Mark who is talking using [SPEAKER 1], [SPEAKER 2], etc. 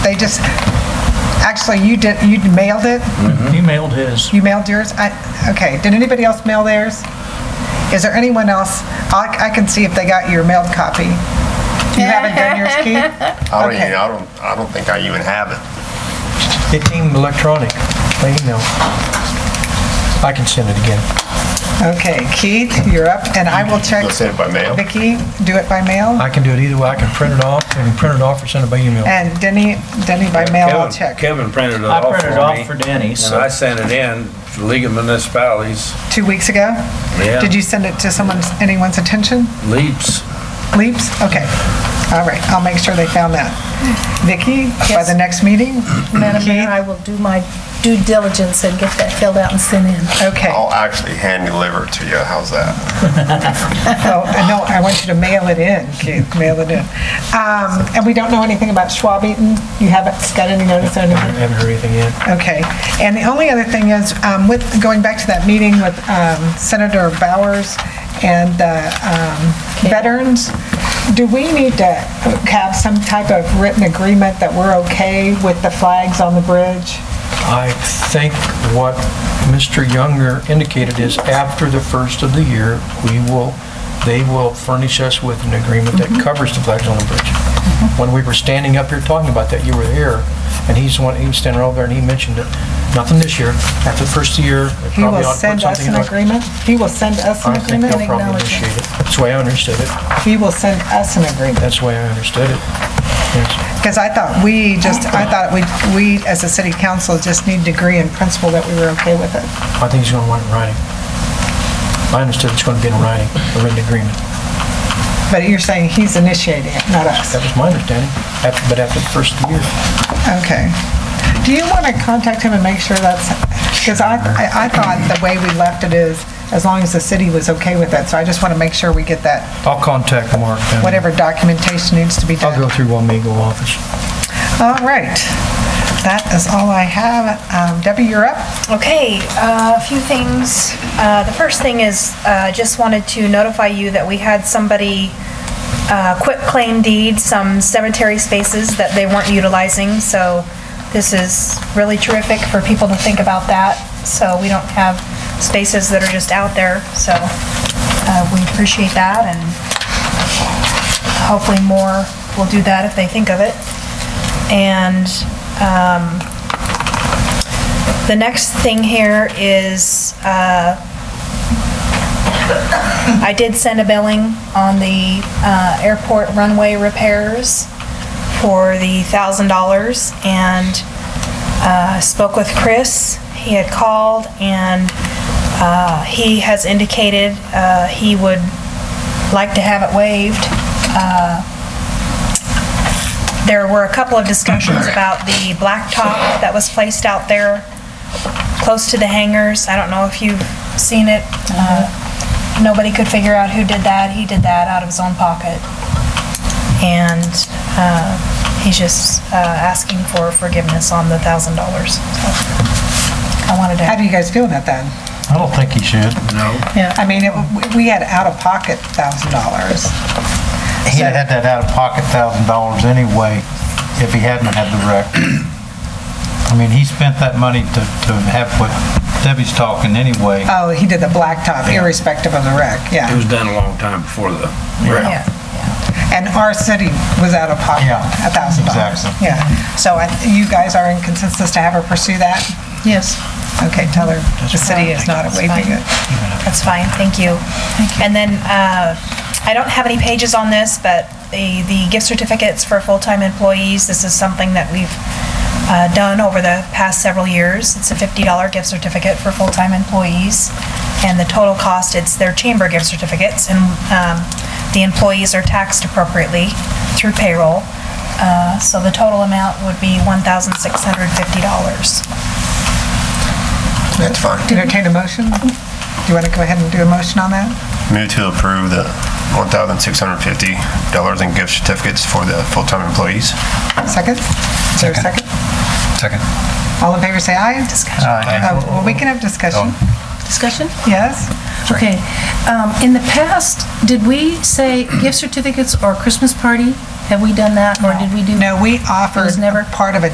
[SPEAKER 1] they just, actually, you did, you mailed it?
[SPEAKER 2] He mailed his.
[SPEAKER 1] You mailed yours? I, okay, did anybody else mail theirs? Is there anyone else? I, I can see if they got your mailed copy. You haven't done yours, Keith?
[SPEAKER 3] I don't even,
[SPEAKER 1] Okay.
[SPEAKER 3] I don't, I don't think I even have it.
[SPEAKER 2] It came electronic, by email. I can send it again.
[SPEAKER 1] Okay, Keith, you're up, and I will check.
[SPEAKER 3] Let's send it by mail.
[SPEAKER 1] Vicki, do it by mail,
[SPEAKER 2] I can do it either way. I can print it off and print it off or send it by email.
[SPEAKER 1] and Denny, Denny by mail, I'll
[SPEAKER 4] Kevin-
[SPEAKER 1] check.
[SPEAKER 4] Kevin printed it
[SPEAKER 2] I
[SPEAKER 4] off for me.
[SPEAKER 2] printed it off for Denny,
[SPEAKER 4] And
[SPEAKER 2] so-
[SPEAKER 4] I sent it in to League of Municipalities,
[SPEAKER 1] Two weeks ago?
[SPEAKER 4] Yeah.
[SPEAKER 1] Did you send it to someone's, anyone's attention?
[SPEAKER 4] Leaps.
[SPEAKER 1] Leaps? Okay. All right, I'll make sure they found that. Vicki, by
[SPEAKER 5] Yes.
[SPEAKER 1] the next meeting?
[SPEAKER 5] Madam Mayor,
[SPEAKER 1] Keith?
[SPEAKER 5] I will do my due diligence and get that filled out and sent in.
[SPEAKER 1] Okay.
[SPEAKER 3] I'll actually hand deliver it to you. How's that?
[SPEAKER 1] Oh, no, I want you to mail it in, Keith, mail it in. Um, And we don't know anything about Schwab Eaton? You haven't got any notice or
[SPEAKER 2] I
[SPEAKER 1] anything?
[SPEAKER 2] haven't heard anything yet.
[SPEAKER 1] Okay. And the only other thing is, um, with, going back to that meeting with um, Senator Bowers and the um, veterans, do we need to have some type of written agreement that we're okay with the flags on the bridge?
[SPEAKER 2] I think what Mr. Younger indicated is after the first of the year, we will, they will furnish us with an agreement that
[SPEAKER 1] Mm-hmm.
[SPEAKER 2] covers the flags on the bridge. When we were standing up here talking about that, you were here, and he's the one, he was standing over there and he mentioned it. Nothing this year. After the first year, they
[SPEAKER 1] He
[SPEAKER 2] probably
[SPEAKER 1] will
[SPEAKER 2] ought to put
[SPEAKER 1] send us
[SPEAKER 2] something in.
[SPEAKER 1] an agreement? He will send us an
[SPEAKER 2] I think
[SPEAKER 1] agreement?
[SPEAKER 2] they'll probably initiate it. That's the way I understood it.
[SPEAKER 1] He will send us an agreement?
[SPEAKER 2] That's the way I understood it. Yes.
[SPEAKER 1] Because I thought we just, I thought we, we as a city council just need to agree in principle that we were okay with it.
[SPEAKER 2] I think he's going to want it in writing. I understood it's going to be in writing, a written agreement.
[SPEAKER 1] But you're saying he's initiating it, not us.
[SPEAKER 2] That was my understanding, after- but after the first year.
[SPEAKER 1] Okay. Do you want to contact him and make sure that's, because I, I I thought the way we left it is, as long as the city was okay with it, so I just want to make sure we get that,
[SPEAKER 2] I'll contact Mark and
[SPEAKER 1] whatever documentation needs to be
[SPEAKER 2] I'll go
[SPEAKER 1] done.
[SPEAKER 2] through Wamego office.
[SPEAKER 1] All right. That is all I have. Um, Debbie, you're up.
[SPEAKER 6] Okay, uh, a few things. Uh, The first thing is, uh, just wanted to notify you that we had somebody uh, quit claim deed some cemetery spaces that they weren't utilizing, so this is really terrific for people to think about that, so we don't have spaces that are just out there, so uh, we appreciate that, and hopefully more will do that if they think of it. And the next thing here is, uh, I did send a billing on the uh, airport runway repairs for the $1,000 and uh, spoke with Chris. He had called and uh, he has indicated uh, he would like to have it waived. Uh, There were a couple of discussions about the blacktop that was placed out there close to the hangars. I don't know if you've seen it. Uh, Nobody could figure out who did that. He did that out of his own pocket. And uh, he's just uh, asking for forgiveness on the $1,000. So I wanted
[SPEAKER 1] How do
[SPEAKER 6] to,
[SPEAKER 1] you guys feel about that?
[SPEAKER 2] I don't think he should.
[SPEAKER 1] I mean, it- we- we had out-of-pocket $1,000.
[SPEAKER 7] He had that out-of-pocket thousand dollars anyway, if he hadn't had the wreck. I mean, he spent that money to, to have what Debbie's talking anyway.
[SPEAKER 1] Oh, he did the blacktop irrespective of the wreck,
[SPEAKER 4] It
[SPEAKER 1] yeah.
[SPEAKER 4] was done a long time before the wreck.
[SPEAKER 6] yeah.
[SPEAKER 1] And our city was out of pocket,
[SPEAKER 7] Yeah,
[SPEAKER 1] a thousand dollars.
[SPEAKER 7] exactly.
[SPEAKER 1] Yeah, so I- you guys are in consensus to have her pursue that?
[SPEAKER 5] Yes.
[SPEAKER 1] Okay, tell her the city is not waiving it.
[SPEAKER 6] That's fine, thank you. And then, uh, I don't have any pages on this, but the the gift certificates for full-time employees, this is something that we've uh, done over the past several years. It's a $50 gift certificate for full-time employees, and the total cost, it's their chamber gift certificates, and um, the employees are taxed appropriately through payroll. Uh, So the total amount would be $1,650.
[SPEAKER 3] That's fine.
[SPEAKER 1] Entertain a motion? Do you want to go ahead and do a motion on that?
[SPEAKER 3] Move to approve the $1,650 in gift certificates for the full-time employees.
[SPEAKER 1] Second? Is there a second?
[SPEAKER 7] Second.
[SPEAKER 1] All in favor, say aye.
[SPEAKER 6] Discussion.
[SPEAKER 1] Oh, Well, we can have discussion.
[SPEAKER 5] Discussion?
[SPEAKER 1] Yes?
[SPEAKER 5] Okay. Um, In the past, did we say gift certificates or Christmas party? Have we done that, or did we do?
[SPEAKER 1] No, we
[SPEAKER 5] It was
[SPEAKER 1] offered
[SPEAKER 5] never-
[SPEAKER 1] part of a